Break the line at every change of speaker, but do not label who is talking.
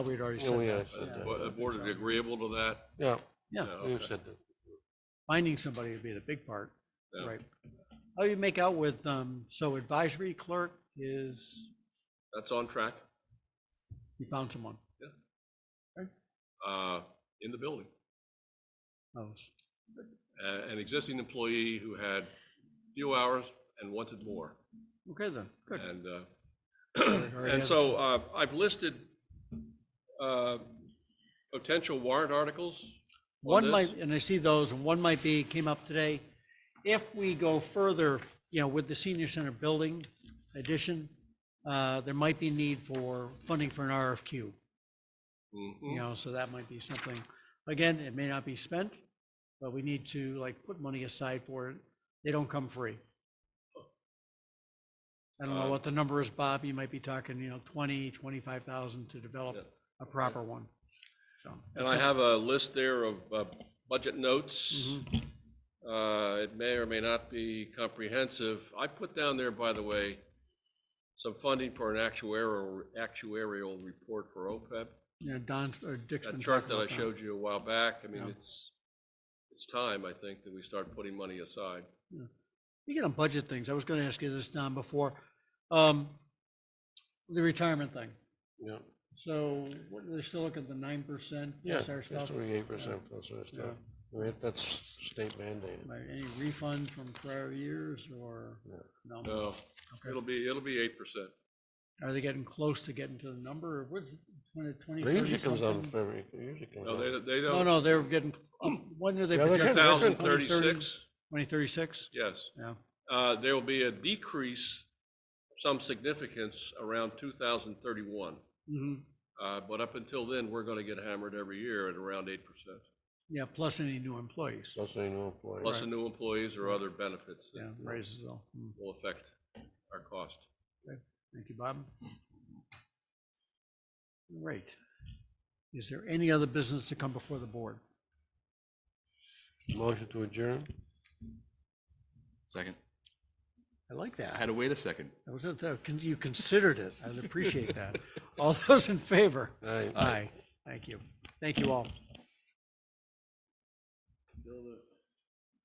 We'd already
Yeah, we
said
have
that.
said
yeah.
that.
Bo- The board is agreeable to that?
Yeah,
uh, Yeah,
we
Oh, okay.
said that.
finding somebody would be the big part,
Yeah.
right? How you make out with, um, so advisory clerk is,
That's on track,
you found someone.
uh, in the building.
Oh,
A- An existing employee who had few hours and wanted more.
Okay then, good.
And, uh,
Already
and
have
so uh, I've listed uh, potential warrant articles. on
One
this.
might, and I see those, and one might be, came up today. If we go further, you know, with the senior center building addition, uh, there might be need for funding for an RFQ.
Mhm.
you know, so that might be something, again, it may not be spent, but we need to like put money aside for it. They don't come free. I don't know
Uh,
what the number is, Bob, you might be talking, you know, twenty, twenty-five thousand to
Yeah,
develop a proper one. So.
And
that's
I
it.
have a list there of uh, budget notes.
Mhm.
Uh, It may or may not be comprehensive. I put down there, by the way, some funding for an actuarial, actuarial report for OPEB.
You know, Don's, or Dick's been
That chart
talking
that I
about
showed you a while back, I mean,
Yeah.
it's, it's time, I think, that we start putting money aside.
Speaking of budget things, I was gonna ask you this, Don, before, um, the retirement thing.
Yeah,
So, what, they're still looking at the nine percent
yeah,
plus our
that's
stuff?
thirty-eight percent plus our
Yeah.
stuff. I mean, that's state mandated.
Right, any refund from prior years or no?
No.
No,
Okay.
it'll be, it'll be eight percent.
Are they getting close to getting to the number? What's twenty, twenty,
It
thirty
usually comes out in
something?
February, it usually comes
No,
out.
they, they
No,
don't,
no, they're getting, um, when do they
Yeah, they're
project?
getting- they're
thousand
getting-
thirty-six,
Twenty thirty-six?
yes.
Yeah,
Uh, there will be a decrease, of some significance, around two thousand thirty-one.
hmm
Uh, but up until then, we're gonna get hammered every year at around eight percent,
yeah, plus any new employees.
Plus they know employees.
plus the new employees or other benefits
Yeah,
that
raises all. Mm.
will affect our cost.
Thank you, Bob. Right. Is there any other business to come before the board?
Motion to adjourn?
Second.
I like
I
that.
had to wait a second.
That was, it. Uh, con- you considered it. I appreciate that. All those in favor?
Aye.
Aye. Thank you. Thank you all.